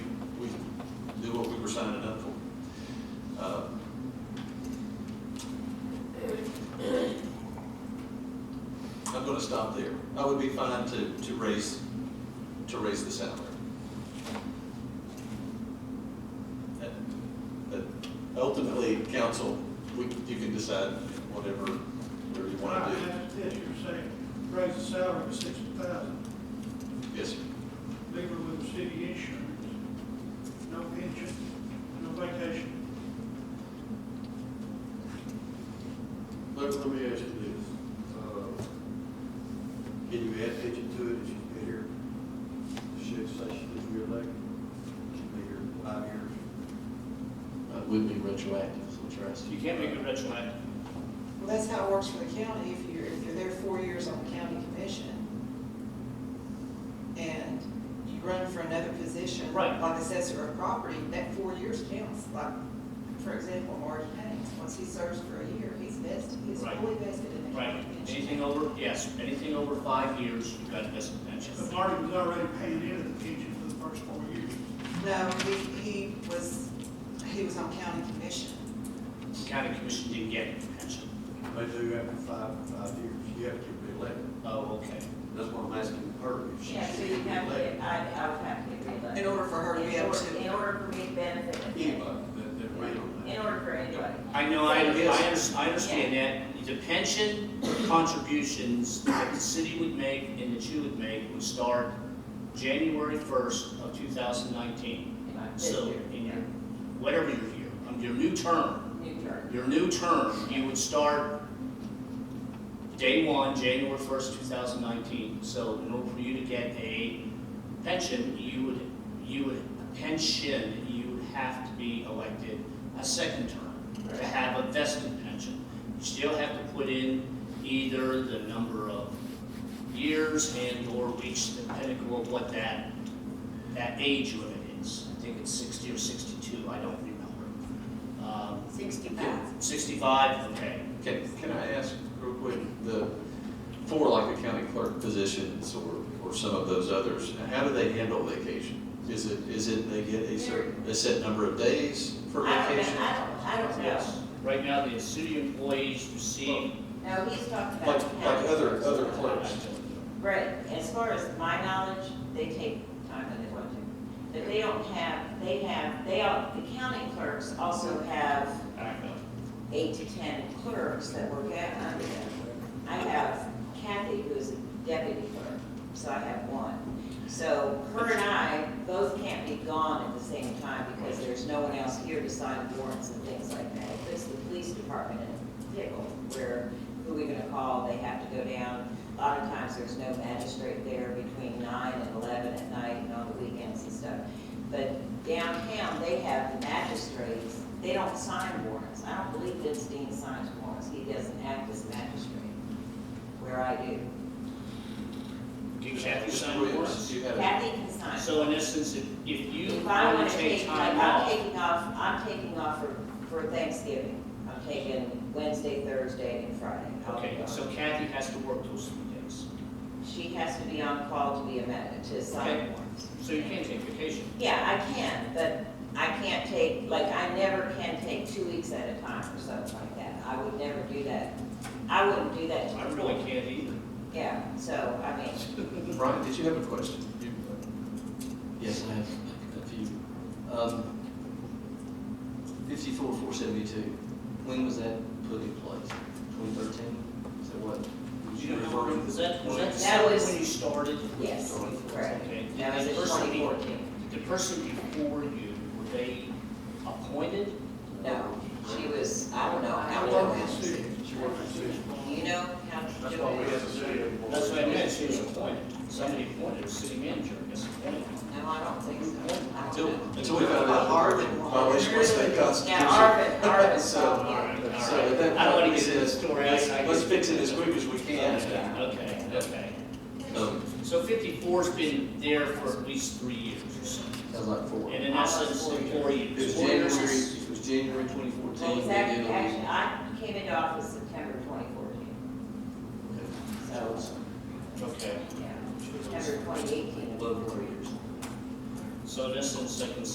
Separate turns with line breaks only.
signing up for. Uh, I'm gonna stop there. I would be fine to, to raise, to raise the salary. But Uh, ultimately, council, we, you can decide whatever, whatever you
Well, I
wanna
mean, that's it, you're saying, raise the salary to sixty thousand,
do. Yes, sir.
leave her with the city insurance, no pension, no vacation.
Let, let me ask you this, uh, can you add attention to it if she's been here? Should say she was reelected, she's been here five years.
It would Uh, be retroactive, so trust.
You can't make it retroactive.
Well, that's how it works for the county, if you're, if you're there four years on the county commission, and you run for another position.
Right.
Like assessor of property, that four years counts, like, for example, Marty Haynes, once he serves for a year, he's vested, he's
Right.
fully vested in the
Right,
county pension.
anything over, yes, anything over five years, you've got to miss a pension.
But Marty was already paying into the pension for the first four years.
No, he, he was, he was on county commission.
The county commission didn't get a pension.
They do after five, five years, you have to get reelected,
Oh, okay.
that's why I'm asking her if she
Yeah, so
should
you
be
have to,
reelected.
get- I, I would have to get reelected.
In order for her to be able
In order-
to,
In order for me to benefit.
Anybody that, that ran on
In
that.
order for anybody.
I know, I, I
Yes.
under- I understand that, the pension contributions that the city would make and that you would make would start January first of two thousand nineteen.
This
So,
year,
in
yeah.
your, whatever your year, um, your new term,
New term.
your new term, you would start day one, January first, two thousand nineteen. So in order for you to get a pension, you would, you would, a pension, you would have to be elected a second term to have a vested pension. You still have to put in either the number of years and or reach the pinnacle of what that, that age limit is. I think it's sixty or sixty-two, I don't remember. Um,
Sixty-five.
65, okay.
Can, can I ask real quick, the, for like the county clerk positions or, or some of those others, how do they handle vacation? Is it, is it they get a certain, a set number of days for
I don't,
vacation?
know- I don't, I don't know.
Yes. Right now, the city employees receive.
No, he's talking about.
Like,
the
like
county.
other, other clerks?
Right, as far as my knowledge, they take time that they want to. But they don't have, they have, they all, the county clerks also have eight to 10 clerks that work out under them. I have Kathy, who's a deputy clerk, so I have one. So her and I both can't be gone at the same time because there's no one else here to sign warrants and things like that. If it's the police department in pickle, where, who are we gonna call, they have to go down. A lot of times, there's no magistrate there between nine and 11 at night and on the weekends and stuff. But downtown, they have the magistrates, they don't sign warrants. I don't believe Lipstein signs warrants, he doesn't act as magistrate, where I do.
Can Kathy
Mr.
sign
Williams,
warrants?
you had a-
Kathy can sign.
So in essence, if if you
If I
want
want
to
to
take
take, like,
time
I'm
off,
taking off, I'm taking off for, for Thanksgiving. I'm taking Wednesday, Thursday, and Friday. I'll be
okay,
gone.
so Kathy has to work those three days.
She has to be on call to be a, ma- to
Okay.
sign warrants.
So you can't take vacation.
Yeah, I can, but I can't take, like, I never can take two weeks at a time or something like that. I would never do that. I wouldn't do that. to
I
the
really
board.
can't either.
Yeah, so, I mean,
Brian, did you have a question? You- Yes, I have a few. Um, fifty-four, four seventy-two, when was that put in place? Twenty thirteen? Is that what?
Do you remember, was that, was that the
That
same
was-
when you started?
yes, correct.
Okay. Did
That was
the
in
person be-
2014.
The person before you, were they appointed?
No, she was, I don't know how
I
long
worked
that
for
was.
the city.
She worked for the city.
You know how to
That's
do
why we
it?
have a city employee.
That's what I meant, she was appointed. Somebody appointed, a city manager, I guess, appointed.
No, I don't think so. I don't
Until,
know.
until we found out Harvard violation was state constitution.
Yeah, Arvin, Arvin
So-
saw
All
you.
right, all
So
right.
at that
I don't
point,
want
we
to get into the
said,
story.
let's,
I- I-
let's fix it as quick as we can.
Yeah.
Okay, okay.
Um,
So fifty-four's been there for at least three years or so.
Sounds like four.
And in essence, four
It was
years. Four
January,
years is-
it was January twenty
Well,
fourteen.
exactly, actually, I came into office September twenty fourteen, so,
Okay.
yeah, September twenty eighteen.
Love four years.
So in essence, I can